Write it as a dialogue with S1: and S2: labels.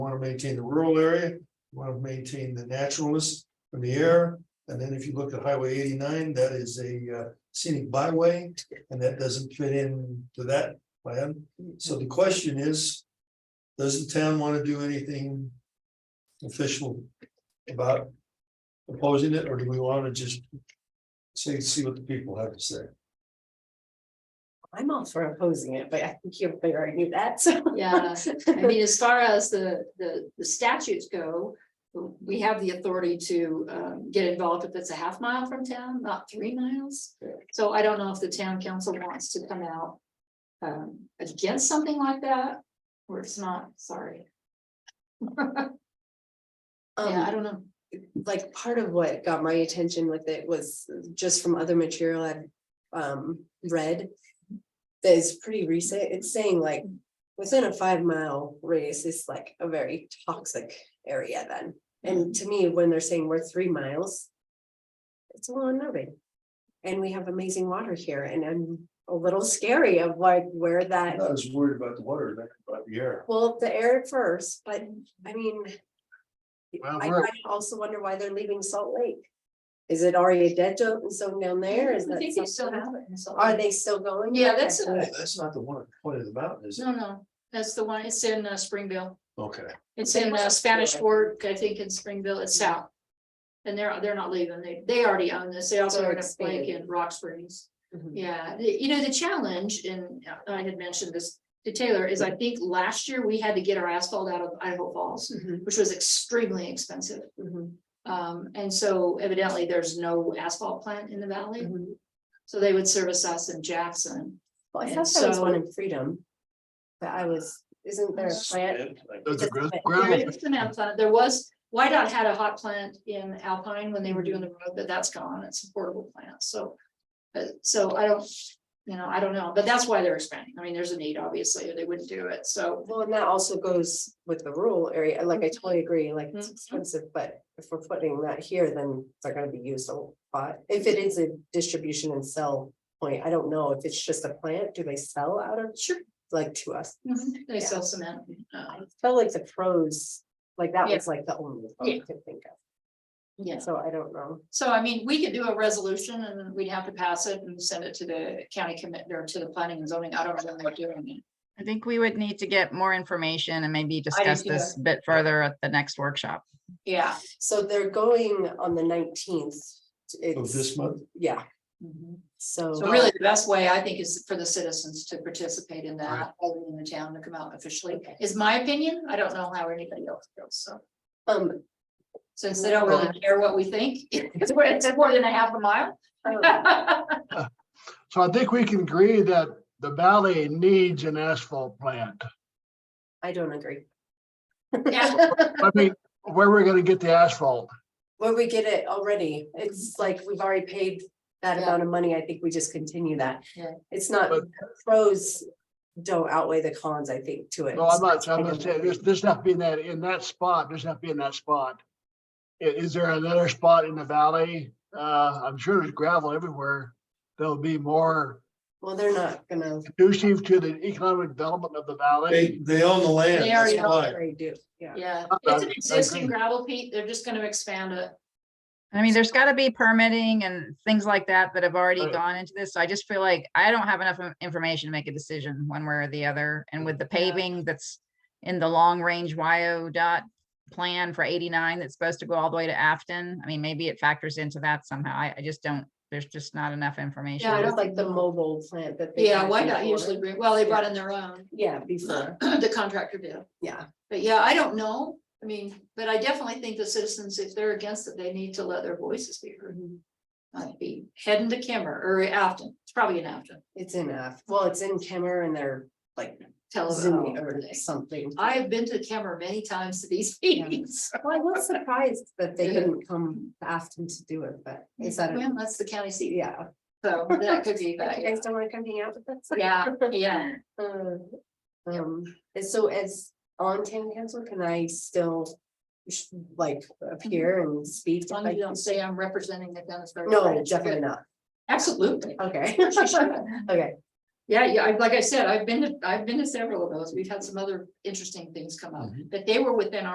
S1: want to maintain the rural area, you want to maintain the naturalness from the air. And then if you look at Highway eighty-nine, that is a uh, scenic byway, and that doesn't fit in to that plan. So the question is, does the town want to do anything official about opposing it, or do we want to just see, see what the people have to say?
S2: I'm all for opposing it, but I think you already knew that, so.
S3: Yeah, I mean, as far as the, the, the statutes go, we have the authority to, um, get involved if it's a half mile from town, not three miles.
S1: Yeah.
S3: So I don't know if the town council wants to come out, um, against something like that, or it's not, sorry. Yeah, I
S2: Um,
S3: don't know.
S2: like, part of what got my attention with it was just from other material I've um read. That is pretty recent, it's saying like, within a five mile radius is like a very toxic area then.
S3: Mm-hmm.
S2: And to me, when they're saying we're three miles. It's a little unnerving. And we have amazing water here and I'm a little scary of like where that
S1: I'm not as worried about the water, than about the air.
S2: Well, the air at first, but I mean.
S1: Well,
S2: I
S1: we're-
S2: I also wonder why they're leaving Salt Lake. Is it already a dead zone zone down there? Is
S3: I
S2: that?
S3: think they still
S2: something?
S3: have it. in Salt
S2: Are
S3: Lake.
S2: they still going?
S3: Yeah, that's a-
S2: Okay.
S1: That's not the one at the point of the mountain, is it?
S3: No, no, that's the one, it's in uh, Springville.
S1: Okay.
S3: It's
S2: They
S3: in
S2: must
S3: uh,
S2: have
S3: Spanish
S2: stolen it.
S3: Fork, I think in Springville, it's south. And they're, they're not leaving, they, they already own this, they also
S2: They're
S3: own a flake
S2: expanding.
S3: in Rock Springs.
S2: Mhm.
S3: Yeah, the- you know, the challenge, and I had mentioned this to Taylor, is I think last year we had to get our asphalt out of Idaho Falls,
S2: Mhm,
S3: which was extremely expensive.
S2: mhm,
S3: Um, and so evidently there's no asphalt plant in the valley,
S2: mhm.
S3: so they would service us in Jackson.
S2: Well, I
S3: And
S2: thought there was
S3: so-
S2: one in Freedom. But I was, isn't there a plant?
S1: That's a
S2: gr-
S3: There is the man plant. There was, YDOT had a hot plant in Alpine when they were doing the road, but that's gone. It's a portable plant, so. uh, so I don't, you know, I don't know, but that's why they're expanding. I mean, there's a need, obviously, or they wouldn't do it, so.
S2: Well, and that also goes with the rural area. Like, I
S3: Mm-hmm.
S2: totally agree, like, it's
S3: Mhm.
S2: expensive, but if we're putting that here, then they're gonna be used a lot. If it is a distribution and sell point, I don't know if it's just a plant, do they sell out of?
S3: Sure.
S2: Like to us,
S3: They
S2: Yeah.
S3: sell cement. uh,
S2: I felt like the pros, like that
S3: Yeah.
S2: was like the only one I could think
S3: Yeah,
S2: of, so I don't know.
S3: so I mean, we could do a resolution and then we'd have to pass it and send it to the county commit or to the planning and zoning. I don't know when they're doing it.
S4: I think we would need to get more information and maybe
S3: do
S4: discuss
S3: too.
S4: this a bit further at the next workshop.
S3: Yeah.
S2: So they're going on the nineteenth.
S1: Of this month,
S2: Yeah,
S3: Mhm.
S2: so.
S3: So really, the best way, I think, is for the citizens to participate in that, other than the town to come out officially, is my opinion. I don't know how anybody else feels, so.
S2: Um,
S3: Since they don't really care what we think, it's more, it's more than a half a mile.
S2: um,
S5: So I think we can agree that the valley needs an asphalt plant.
S2: I don't agree.
S3: Yeah.
S5: I mean, where we're gonna get the asphalt?
S2: Where we get it already, it's like we've already paid that
S3: Yeah.
S2: amount of money, I think we just continue that.
S3: Yeah.
S2: It's not,
S5: But-
S2: pros don't outweigh the cons, I think, to it.
S5: No, I'm not, I'm not saying, there's, there's not being that, in that spot, there's not being that spot. I- Is there another spot in the valley? Uh, I'm sure there's gravel everywhere. There'll be more
S2: Well, they're not gonna,
S5: conducive to the economic development of the
S1: they,
S5: valley.
S1: they own the land.
S3: They already
S1: that's why.
S3: own
S2: they do, yeah.
S3: Yeah, it's an existing gravel pit. They're just gonna expand it.
S4: I mean, there's got to be permitting and things like that that have already
S5: Right.
S4: gone into this. So I just feel like I don't have enough in- information to make a decision one way or the other. And with the paving that's in the long range YO dot plan for 89 that's supposed to go all the way to Afton, I mean, maybe it factors into that somehow. I, I just don't, there's just not enough information.
S3: I
S2: It
S3: don't
S2: was like the mobile plant that. they
S3: Yeah,
S2: had
S3: why not
S2: before.
S3: usually bring, well, they brought in their own,
S2: Yeah, before,
S3: the contractor did.
S2: yeah,
S3: But yeah, I don't know. I mean, but I definitely think the citizens, if they're against it, they need to let their voices be heard. Might be heading to Kimmer or Afton. It's probably in Afton.
S2: it's in, uh, well, it's in Kimmer and they're like
S3: Tell us.
S2: Zoom or something.
S3: Oh, I have been to Kimmer many times to these meetings.
S2: Well, I was surprised that they
S3: Yeah.
S2: didn't come to Afton to do it, but is that, a-
S3: Well, that's the county seat.
S2: yeah.
S3: So that could be
S2: Like,
S3: that.
S2: You guys don't wanna come hang out with us?
S3: Yeah, yeah.
S2: Uh, Um, and so as on town council, can I still sh- like appear and speak?
S3: Mm-hmm. As
S2: if
S3: long as
S2: I-
S3: you don't say I'm representing the Dennisburg.
S2: No, definitely not.
S3: Absolutely.
S2: Okay,
S3: She should.
S2: okay.
S3: Yeah, yeah, I- like I said, I've been, to I've been to several of those. We've had some other interesting things come up, but they were within our.